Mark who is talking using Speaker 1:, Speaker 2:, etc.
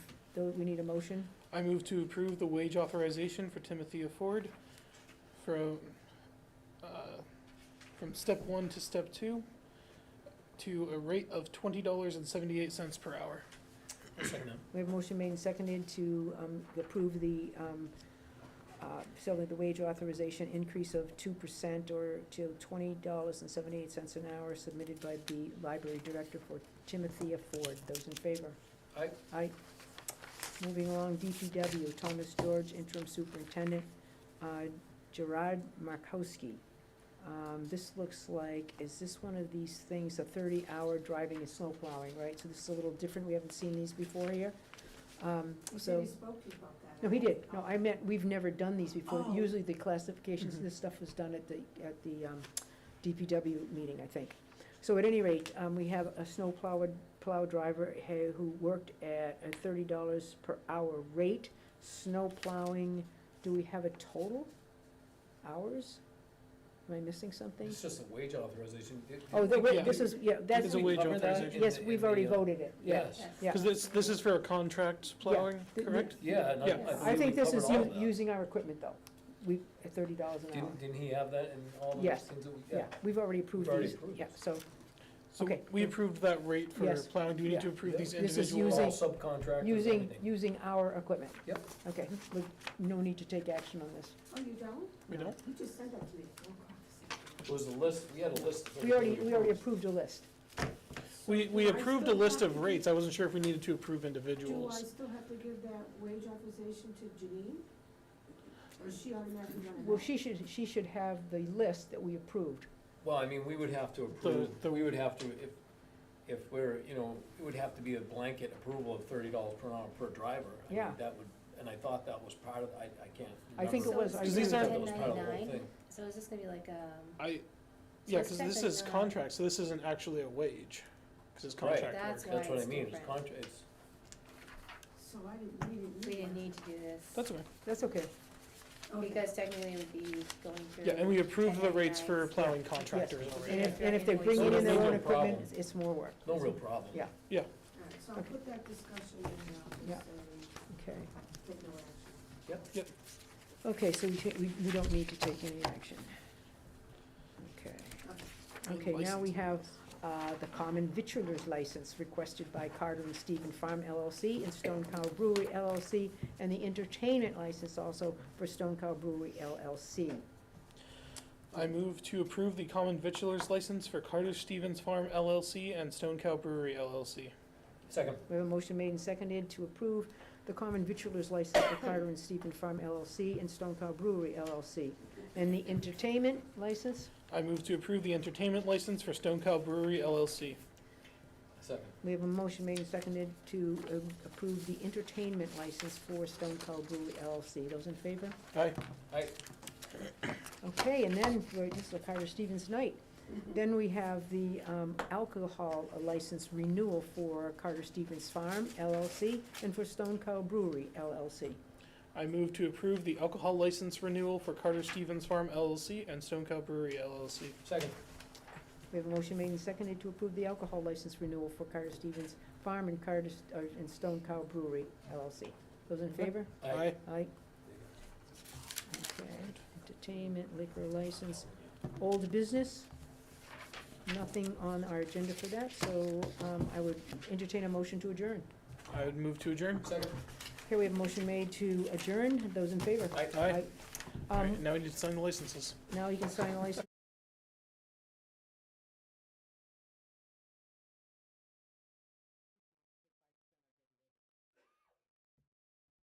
Speaker 1: So we need a motion.
Speaker 2: I move to approve the wage authorization for Timothy Ford from, uh, from step one to step two to a rate of twenty dollars and seventy-eight cents per hour.
Speaker 1: We have a motion made and seconded to um, approve the, um, uh, so that the wage authorization increase of two percent or to twenty dollars and seventy-eight cents an hour submitted by the library director for Timothea Ford. Those in favor?
Speaker 3: Aye.
Speaker 1: Aye. Moving along, DPW, Thomas George, interim superintendent, uh, Gerard Markowski. Um, This looks like, is this one of these things, a thirty-hour driving and snow plowing, right? So this is a little different, we haven't seen these before here. Um,
Speaker 4: You said
Speaker 1: So,
Speaker 4: you spoke to you about that.
Speaker 1: no, he did, no, I meant, we've never done these before.
Speaker 4: Oh.
Speaker 1: Usually the classifications,
Speaker 3: Mm-hmm.
Speaker 2: Mhm.
Speaker 1: this stuff was done at the, at the um, DPW meeting, I think. So at any rate, um, we have a snow plow, plow driver ha- who worked at a thirty dollars per hour rate. Snow plowing, do we have a total? Hours? Am I missing something?
Speaker 3: It's just a wage authorization. Did- did
Speaker 1: Oh, the
Speaker 3: we-
Speaker 1: wa-
Speaker 2: Yeah.
Speaker 1: this is, yeah, that's,
Speaker 2: It's a
Speaker 3: did we
Speaker 2: wage
Speaker 3: cover that
Speaker 2: authorization.
Speaker 3: in
Speaker 1: yes,
Speaker 3: the-
Speaker 1: we've
Speaker 3: in the,
Speaker 1: already
Speaker 3: uh,
Speaker 1: voted it.
Speaker 3: Yes,
Speaker 4: Yes.
Speaker 1: Yeah.
Speaker 2: Because this, this is for a contract plowing,
Speaker 1: The- the-
Speaker 2: correct?
Speaker 3: yeah, and I- I
Speaker 2: Yeah.
Speaker 3: believe
Speaker 1: I think
Speaker 3: we
Speaker 1: this is
Speaker 3: covered all
Speaker 1: u-
Speaker 3: of that.
Speaker 1: using our equipment, though. We, at thirty dollars an hour.
Speaker 3: Didn't, didn't he have that in all those
Speaker 1: Yes.
Speaker 3: things that we,
Speaker 1: Yeah,
Speaker 3: yeah?
Speaker 1: we've already approved
Speaker 3: We've already
Speaker 1: these,
Speaker 3: approved
Speaker 1: yeah,
Speaker 3: this.
Speaker 1: so,
Speaker 2: So
Speaker 1: Okay.
Speaker 2: we approved that rate for
Speaker 1: Yes.
Speaker 2: plowing. Do we need to
Speaker 1: Yeah.
Speaker 2: approve these
Speaker 1: This is
Speaker 2: individual?
Speaker 3: All
Speaker 1: using-
Speaker 3: subcontractors,
Speaker 1: using,
Speaker 3: everything.
Speaker 1: using our equipment.
Speaker 3: Yep. Mm-hmm.
Speaker 1: Okay, we- no need to take action on this.
Speaker 4: Oh, you don't?
Speaker 2: We
Speaker 1: No.
Speaker 2: don't?
Speaker 4: You just said that to me. Oh, crap.
Speaker 3: It was a list, we had a list. of
Speaker 1: We already,
Speaker 3: everything
Speaker 1: we already
Speaker 3: approved.
Speaker 1: approved a list.
Speaker 2: We, we
Speaker 4: Do I
Speaker 2: approved a
Speaker 4: still
Speaker 2: list
Speaker 4: have
Speaker 2: of
Speaker 4: to-
Speaker 2: rates. I wasn't sure if we needed to approve
Speaker 4: Do I
Speaker 2: individuals.
Speaker 4: still have to give that wage authorization to Janine? Or is she automatically running?
Speaker 1: Well, she should, she should have the list that we approved.
Speaker 3: Well, I mean, we would have to approve,
Speaker 2: the-
Speaker 3: we would have to, if, if we're, you know, it would have to be a blanket approval of thirty dollars per hour per driver. I mean,
Speaker 1: Yeah.
Speaker 3: That would, and I thought that was part of, I, I can't
Speaker 1: I think
Speaker 3: remember.
Speaker 1: it was, I
Speaker 2: Because
Speaker 1: agree with
Speaker 2: these aren't-
Speaker 3: That
Speaker 1: that.
Speaker 3: was part of the whole
Speaker 5: 10.99?
Speaker 3: thing.
Speaker 5: So is this gonna be like, um,
Speaker 2: I,
Speaker 5: So
Speaker 2: yeah,
Speaker 5: it's
Speaker 2: because this is
Speaker 5: technically not-
Speaker 2: contract, so this isn't actually a wage, because it's
Speaker 3: Right.
Speaker 2: contract work.
Speaker 5: That's
Speaker 3: That's
Speaker 5: why
Speaker 3: what I
Speaker 5: it's
Speaker 3: mean, it's
Speaker 5: different.
Speaker 3: contra, it's,
Speaker 4: So I didn't, we didn't.
Speaker 5: we didn't need to do this?
Speaker 2: That's okay.
Speaker 1: That's okay,
Speaker 4: Okay.
Speaker 5: Because technically it would be going through.
Speaker 2: Yeah, and we approved the rates for
Speaker 5: 10.99s.
Speaker 2: plowing contractors
Speaker 1: and
Speaker 2: already.
Speaker 1: if, and if they're bringing in their own equipment, it's- it's more work.
Speaker 3: no real problem.
Speaker 1: Yeah.
Speaker 4: All right, so I'll put that discussion in now,
Speaker 1: Yeah.
Speaker 4: so
Speaker 1: Okay,
Speaker 4: take no action.
Speaker 1: okay, so we take, we, we don't need to take any action. Okay, okay, now we have uh, the common vitriol's license requested by Carter and Stephen Farm LLC and Stone Cow Brewery LLC, and the entertainment license also for Stone Cow Brewery LLC.
Speaker 2: I move to approve the common victualer's license for Carter Stevens Farm LLC and Stone Cow Brewery LLC.
Speaker 3: Second,
Speaker 1: We have a motion made and seconded to approve the common vitriol's license for Carter and Stephen Farm LLC and Stone Cow Brewery LLC. And the entertainment license,
Speaker 2: I move to approve the entertainment license for Stone Cow Brewery LLC.
Speaker 3: second,
Speaker 1: we have a motion made and seconded to um, approve the entertainment license for Stone Cow Brewery LLC. Those in favor?
Speaker 2: Aye.
Speaker 3: I,
Speaker 1: Okay, and then, for- this is a Carter Stevens night. Then we have the um, alcohol license renewal for Carter Stevens Farm LLC and for Stone Cow Brewery LLC.
Speaker 2: I move to approve the alcohol license renewal for Carter Stevens Farm LLC and Stone Cow Brewery LLC.
Speaker 3: second,
Speaker 1: We have a motion made and seconded to approve the alcohol license renewal for Carter Stevens Farm and Carter, uh, and Stone Cow Brewery LLC. Those in favor?
Speaker 3: I.
Speaker 1: Aye. Okay, entertainment, liquor license, old business. Nothing on our agenda for that, so, um, I would entertain a motion to adjourn.
Speaker 2: I would move to adjourn.
Speaker 3: Second,
Speaker 1: Here we have a motion made to adjourn. Those in favor?
Speaker 3: I.
Speaker 2: Aye.
Speaker 1: Um,
Speaker 2: Alright, now we need to sign the licenses.
Speaker 1: now you can sign the license.